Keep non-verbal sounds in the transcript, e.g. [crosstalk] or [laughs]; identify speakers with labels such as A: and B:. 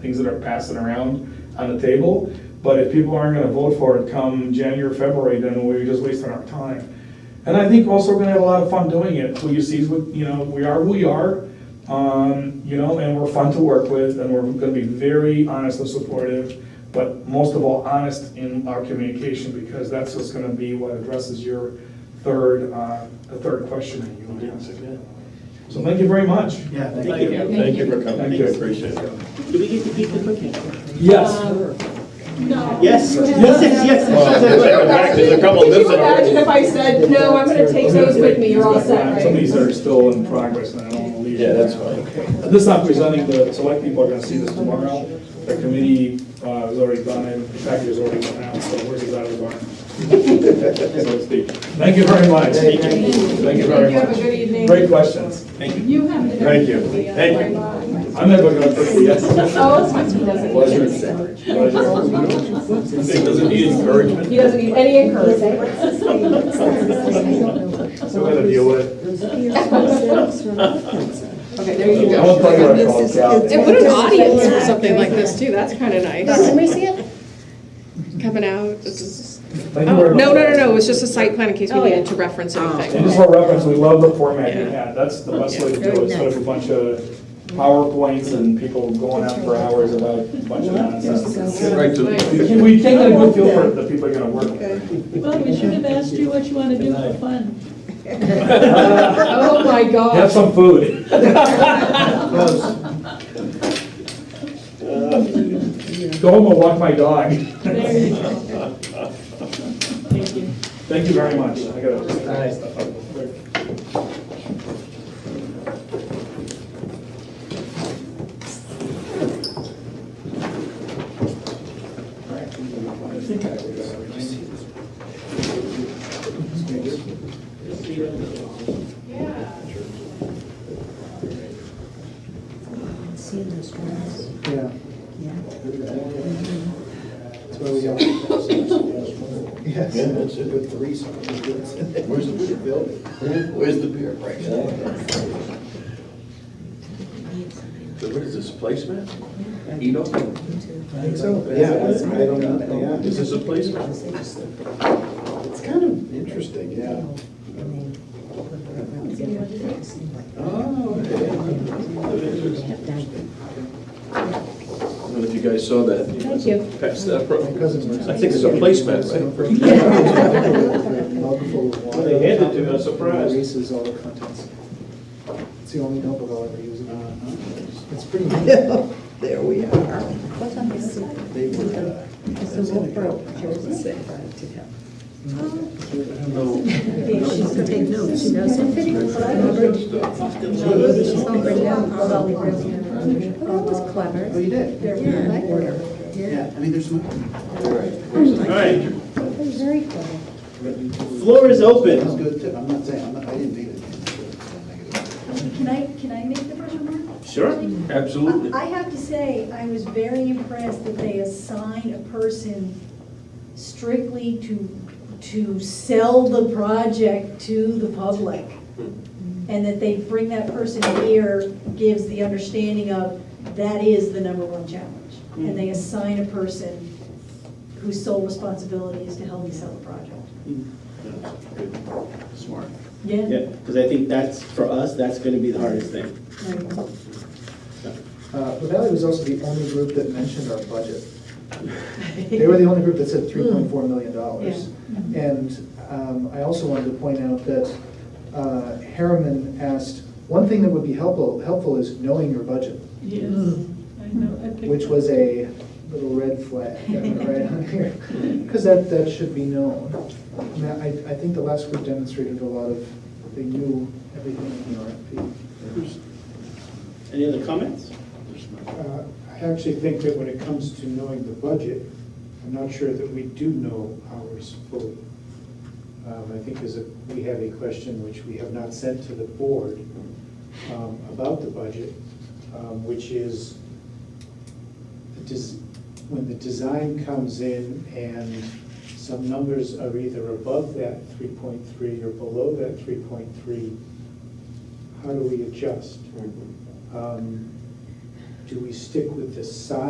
A: things that are passing around on the table. But if people aren't gonna vote for it come January, February, then we're just wasting our time. And I think also we're gonna have a lot of fun doing it. Who you see is what, you know, we are who we are. Um, you know, and we're fun to work with and we're gonna be very honest and supportive, but most of all, honest in our communication because that's what's gonna be what addresses your third, uh, the third question that you asked. So thank you very much.
B: Yeah,
C: Thank you.
D: Thank you for coming,
A: Thank you.
D: appreciate it.
C: Do we get to keep the cookie?
E: No.
C: Yes.
E: You have-
C: Yes, yes, yes.
D: Well, there's a- there's a couple
E: Could you
D: lips in there.
E: imagine if I said, no, I'm gonna take those with me, you're all set, right?
A: Some of these are still in progress and I don't wanna leave.
D: Yeah, that's fine.
A: This is not presenting, the select people are gonna see this tomorrow. The committee uh, has already done it, the package has already gone out, so where's it out
D: [laughs]
A: of the barn? So to speak. Thank you very much. Thank you. Thank you very
E: You have a
A: much.
E: good evening.
A: Great questions.
E: You have. to-
D: Thank you. Thank you.
A: I'm never gonna put the yes.
E: Oh, it's my [laughs] doesn't.
D: Pleasure. Doesn't need encouragement.
E: He doesn't need any
F: [laughs]
E: encouragement.
A: Something to deal with.
E: Okay, there you
A: I
E: go.
A: won't tell you what I called Cal.
G: They put an audience for something like this too, that's kind of nice. Can we see it? Coming out. this is-
A: Thank you
G: Oh,
A: very much.
G: no, no, no, no, it was just a site plan in case we needed to reference
A: And
G: anything.
A: just for reference, we love the format we
G: Yeah.
A: had, that's the best way to do it, instead of a bunch of PowerPoints and people going on for hours about a bunch of nonsense.
D: Get right to it.
A: We can- We can't get a good feel for the people you're gonna work with.
H: Well, we should have asked you what you want to do
F: [laughs]
H: for fun.
E: [laughs] Oh, my
A: Have
E: gosh.
A: some food. Go home and walk my dog.
H: There you go. Thank you.
A: Thank you very much, I gotta.
B: Yeah. That's why we got. Yes.
D: Yeah, that's it.
B: With three signs.
D: Where's the beer building? Where's the beer right now? So what is this, a placement? Edo?
B: I think so. Yeah, I I don't know,
D: Is
B: yeah.
D: this a placement?
B: It's kind of interesting, yeah.
D: Oh, okay. I don't know if you guys saw that. Thank you. Passed that,
B: My
D: pro-
B: cousin works.
D: I think it's a placemat,
B: right?
C: They handed it to me, I was surprised.
B: Erases all the contents. It's the only notebook I'll ever use. It's pretty
C: [laughs]
B: neat.
I: There we are.
B: They were, uh,
J: She's gonna take notes, she does. She's gonna bring down all the brilliant. Well, that was
B: oh,
J: clever.
B: you did?
J: They're really clever.
B: Yeah, I mean, there's some,
C: All right,
J: Very clever.
C: floor is
B: that's
C: open.
B: good tip. I'm not saying, I'm not, I didn't mean it.
F: Can I, can I make the first remark?
C: Sure, absolutely.
F: I have to say, I was very impressed that they assign a person strictly to, to sell the project to the public.
C: Hmm.
F: And that they bring that person here gives the understanding of that is the number one challenge.
C: Hmm.
F: And they assign a person whose sole responsibility is to help me sell the project.
C: Hmm. Smart.
F: Yeah?
C: Yeah, because I think that's, for us, that's gonna be the hardest thing.
F: Right.
B: Uh, Valley was also the only group that mentioned our budget. They were the only group that said three point four million dollars. And um, I also wanted to point out that uh, Harriman asked, one thing that would be helpful, helpful is knowing your budget,
H: Yes, I know, I picked
B: which
H: up.
B: was a little red flag, [laughs] right on here. Because that, that should be known. And I, I think the last group demonstrated a lot of, they knew everything in the RFP.
C: Any other comments?
K: Uh, I actually think that when it comes to knowing the budget, I'm not sure that we do know ours fully. Um, I think there's a, we have a question which we have not sent to the board um, about the budget, um, which is, the des- when the design comes in and some numbers are either above that 3.3 or below that 3.3, how do we adjust? Um, Do we stick with the size?